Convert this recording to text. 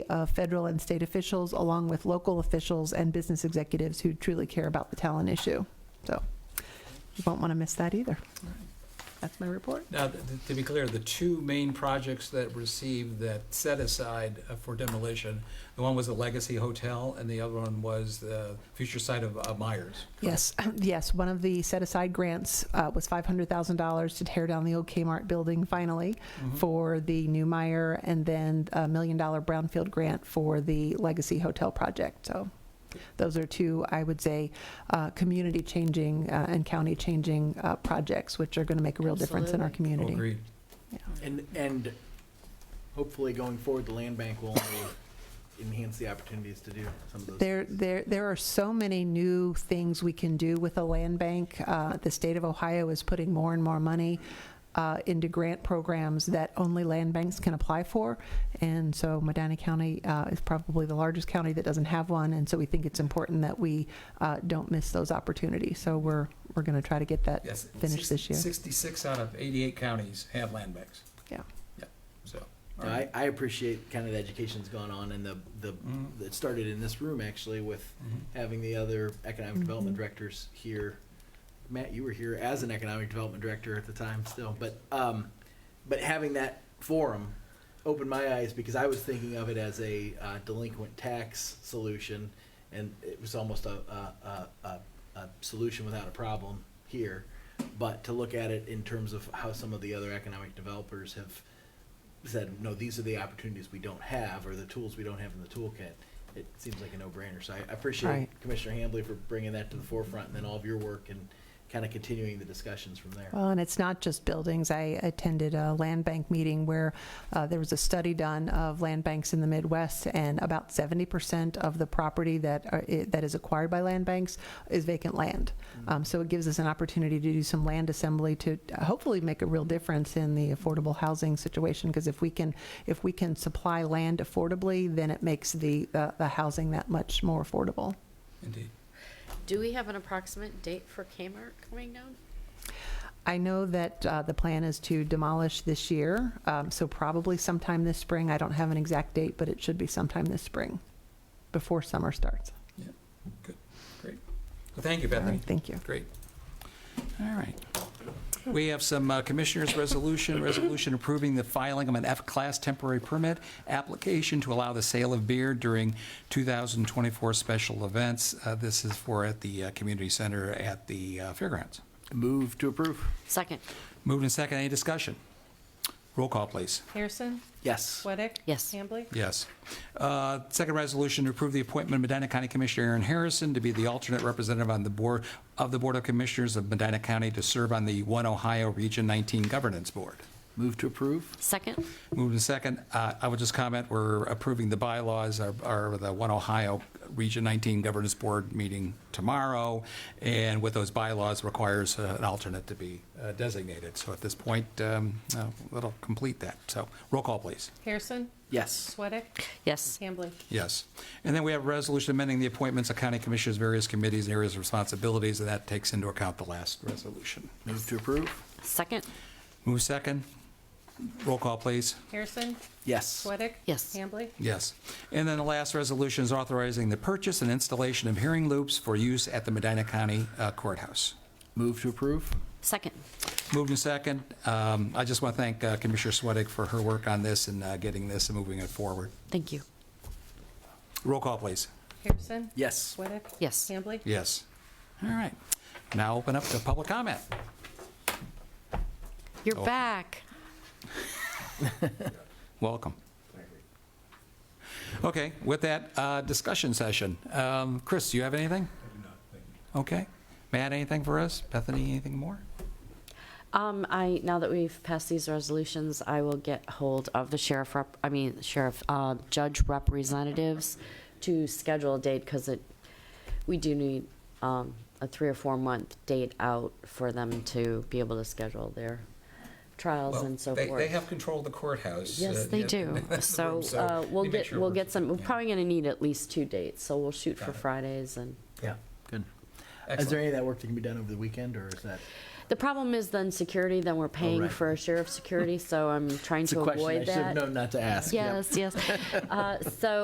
uh, federal and state officials, along with local officials and business executives who truly care about the talent issue. So you won't want to miss that either. That's my report. Now, th- th- to be clear, the two main projects that received that set aside uh, for demolition, the one was the Legacy Hotel, and the other one was the future site of uh, Myers. Yes, yes, one of the set-aside grants uh, was $500,000 to tear down the old Kmart building finally Mm-hmm. for the new Meyer, and then a million-dollar brownfield grant for the Legacy Hotel project. So those are two, I would say, uh, community-changing uh, and county-changing uh, projects, which are going to make a real difference in our Absolutely. community. Mm-hmm. Agreed. And, and hopefully going forward, the land bank will only enhance the opportunities to do some of those. There, things. there, there are so many new things we can do with a land bank. Uh, The state of Ohio is putting more and more money uh, into grant programs that only land banks can apply for. And so Medina County uh, is probably the largest county that doesn't have one, and so we think it's important that we uh, don't miss those opportunities. So we're, we're going to try to get that. Yes. Finish this year. Sixty-six out of eighty-eight counties have land banks. Yeah. Yeah, so. all No, right. I, I appreciate kind of the education's gone on and the, the, Mhm. it started in this room actually with Mhm. having the other economic development Mhm. directors here. Matt, you were here as an economic development director at the time still, but, um, but having that forum opened my eyes because I was thinking of it as a uh, delinquent tax solution, and it was almost a, a, a, a, a solution without a problem here. But to look at it in terms of how some of the other economic developers have said, no, these are the opportunities we don't have, or the tools we don't have in the toolkit, it seems like a no-brainer. So I I appreciate Right. Commissioner Hambley for bringing that to the forefront, and then all of your work and kind of continuing the discussions from there. Well, and it's not just buildings. I attended a land bank meeting where uh, there was a study done of land banks in the Midwest, and about 70% of the property that are, i- that is acquired by land banks is vacant land. Um, so it gives us an opportunity to do some land assembly to uh, hopefully make a real difference in the affordable housing situation. Because if we can if we can supply land affordably, then it makes the the, the housing that much more affordable. Indeed. Do we have an approximate date for Kmart coming down? I know that uh, the plan is to demolish this year, um, so probably sometime this spring. I don't have an exact date, but it should be sometime this spring, before summer starts. Well, Thank you, All Bethany. right, thank you. Great. All right. We have some uh, Commissioners' Resolution, resolution approving the filing of an F-Class temporary permit application to allow the sale of beer during 2024 special events. Uh, This is for at the uh, Community Center at the uh, Fairgrounds. Move to approve. Second. Moved and second, any discussion? Roll call, please. Harrison? Yes. Sweattick? Yes. Hambley? Yes. Uh, Second resolution, to approve the appointment of Medina County Commissioner Aaron Harrison to be the alternate representative on the Board, of the Board of Commissioners of Medina County to serve on the One Ohio Region 19 Governance Board. Move to approve. Second. Moved and second. Uh, I would just comment, we're approving the bylaws, our- our, the One Ohio Region 19 Governance Board meeting tomorrow, and with those bylaws requires uh, an alternate to be uh, designated. So at this point, um, uh, that'll complete that. So roll call, please. Harrison? Yes. Sweattick? Yes. Hambley? Yes. And then we have a resolution amending the appointments of county commissioners, various committees, and areas of responsibilities, and that takes into account the last resolution. Move to approve. Second. Move second. Roll call, please. Harrison? Yes. Sweattick? Yes. Hambley? Yes. And then the last resolution is authorizing the purchase and installation of hearing loops for use at the Medina County uh, Courthouse. Move to approve. Second. Moved and second. Um, I just want to thank uh, Commissioner Sweattick for her work on this and uh, getting this and moving it forward. Thank you. Roll call, please. Harrison? Yes. Sweattick? Yes. Hambley? Yes. All right. Now open up to public comment. You're Oh. back. Welcome. Okay, with that, uh, discussion session. Um, Chris, do you have anything? Okay. Matt, anything for us? Bethany, anything more? Um, I, now that we've passed these resolutions, I will get hold of the sheriff rep, I mean, sheriff, uh, judge representatives to schedule a date because it, we do need, um, a three or four month date out for them to be able to schedule their trials Well, and so they- forth. They have control of the courthouse. Yes, uh, they yeah, do. in the So room, uh, we'll they make get, sure we'll we're- get some, we're yeah. probably going to need at least two dates, so we'll shoot Got for it. Fridays and. Yeah. Good. Is there Excellent. any of that work that can be done over the weekend, or is that? The problem is then security, then we're paying right. for sheriff's security, so I'm trying It's a to question I avoid should have that. known not to ask. Yep. Yes, yes. Uh, So